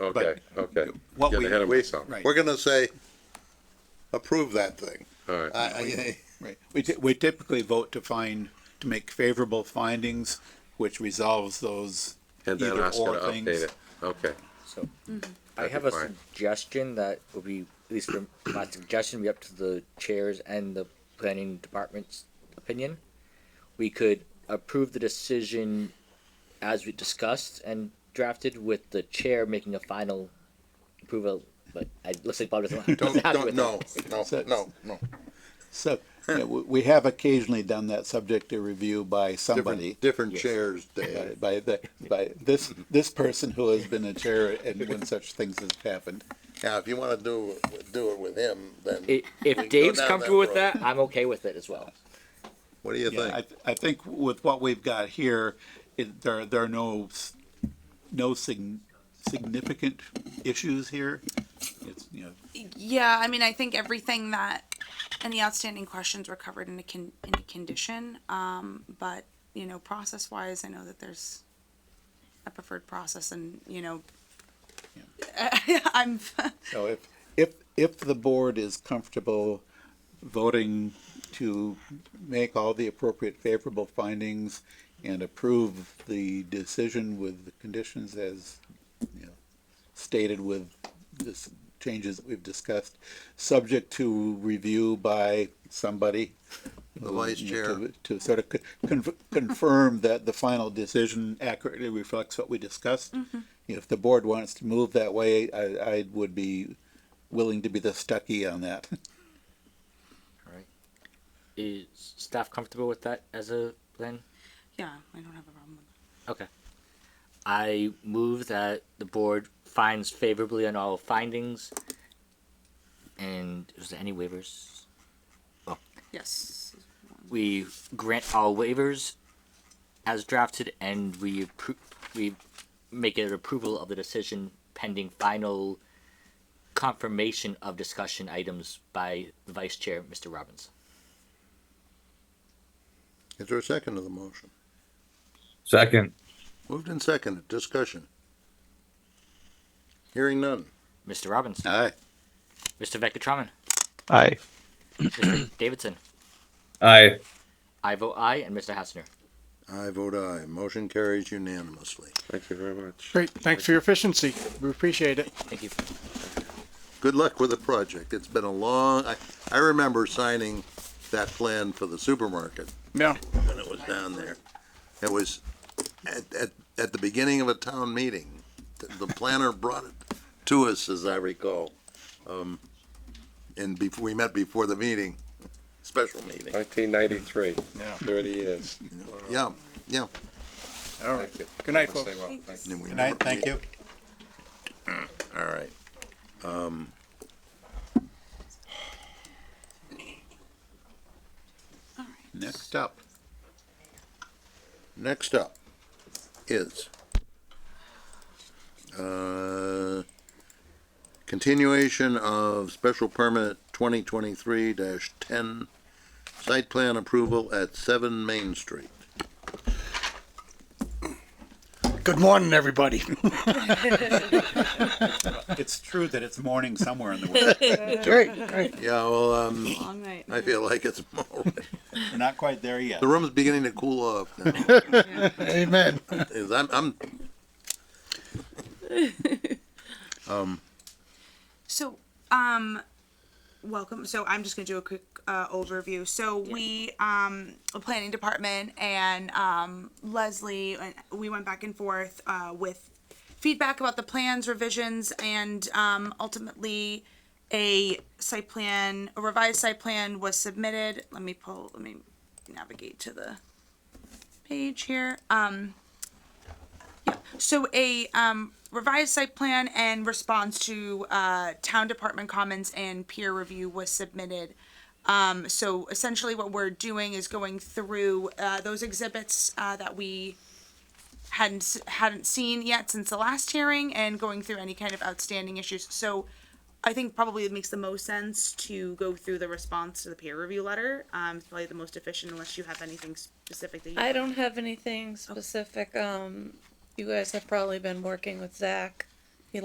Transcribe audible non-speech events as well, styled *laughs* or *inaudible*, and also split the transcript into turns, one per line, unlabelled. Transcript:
Okay, okay.
what
Get
we-
ahead of myself.
right.
We're gonna say, approve
*laughs*
that thing.
All right.
I- I-
Right. Uh, We, ty- we typically vote to find, to make favorable findings, which resolves those
And then
either
ask her
or
to update
things.
it. Okay.
So, I
That'd
have
be
a
fine.
suggestion that would be, at least for my suggestion, be up to the chairs and the planning department's opinion. We could approve the decision as we discussed and drafted with the chair making a final approval, but I, looks
*laughs*
like Bob doesn't. *laughs*
Don't, don't, no, no,
So-
no, no.
*laughs*
So, yeah, we, we have occasionally done that subject to review by somebody.
Different, different
Yes.
chairs,
By,
Dave.
by the, by this, this person who has been a chair and when such things have happened.
Now, if you wanna do, do it with him, then,
I- If
down
Dave's
that
comfortable with
road.
that, I'm okay with it as well.
what do you
Yeah, I,
think?
th- I think with what we've got here, it, there, there are no, s- no sig- significant issues here. It's, you know,
Yeah, I mean, I think everything that, and the outstanding questions were covered in a con, in a condition, um, but, you know, process-wise, I know that there's a preferred process and, you know, *laughs* I'm,
So if, if, if the board is comfortable voting to make all the appropriate favorable findings and approve the decision with the conditions as, you know, stated with this changes that we've discussed, subject to review by somebody.
The vice
to-
chair.
To sort of con- confirm that the final decision accurately reflects what we discussed. If the board wants to move that way, I, I would be willing to be the stuckey on that. *laughs*
Is staff comfortable with that as a plan?
yeah, I don't have a problem with
Okay. I move that the board finds favorably on all findings. And is there any waivers?
it. Yes,
We grant all waivers as drafted and we appro- we make an approval of the decision pending final confirmation of discussion items by the vice chair, Mr. Robbins.
Is there a second to the motion?
Second,
Moved and seconded, discussion. Hearing none.
Mr. Robbins,
Aye.
Mr. Veckatraman,
aye.
Mr. Davidson,
Aye.
I vote aye, and Mr. Hassner.
I vote aye, motion carries unanimously.
Thank you very much.
Great, thanks for your efficiency. We appreciate it.
Thank you.
Good luck with the project, it's been a long, I, I remember signing that plan for the supermarket.
Yeah,
when it was down there. It was at, at, at the beginning of a town meeting. The- The planner brought it to us, as I recall. Um, and before, we met before the meeting, special meeting.
Nineteen ninety-three,
yeah.
thirty years.
Yeah, yeah.
All right. Good night, folks.
Stay well. Thank you.
and we
Good night,
never-
thank you.
All right. Um,
Next up.
next up is, uh, continuation of special permit twenty twenty-three ten, site plan approval at seven Main Street.
Good morning, everybody. *laughs*
It's true that it's morning somewhere in the world.
Great, great.
Yeah, well, um,
long night.
I feel like it's *laughs* more.
We're not quite there yet.
The room's beginning to cool off. now.
Amen.
Is- I'm, I'm,
So, um, welcome. So I'm just gonna do a quick uh, overview. So we, um, the planning department and um, Leslie, and we went back and forth uh, with feedback about the plans, revisions, and um, ultimately a site plan, a revised site plan was submitted. Let me pull. Let me navigate to the page here. Um, yeah. So a um, revised site plan and response to uh, town department comments and peer review was submitted. Um, so essentially, what we're doing is going through uh, those exhibits uh, that we hadn't s- hadn't seen yet since the last hearing and going through any kind of outstanding issues. So. I think probably it makes the most sense to go through the response to the peer review letter. Um, it's probably the most efficient unless you have anything specific that you.
I don't have anything specific. Um, you guys have probably been working with Zach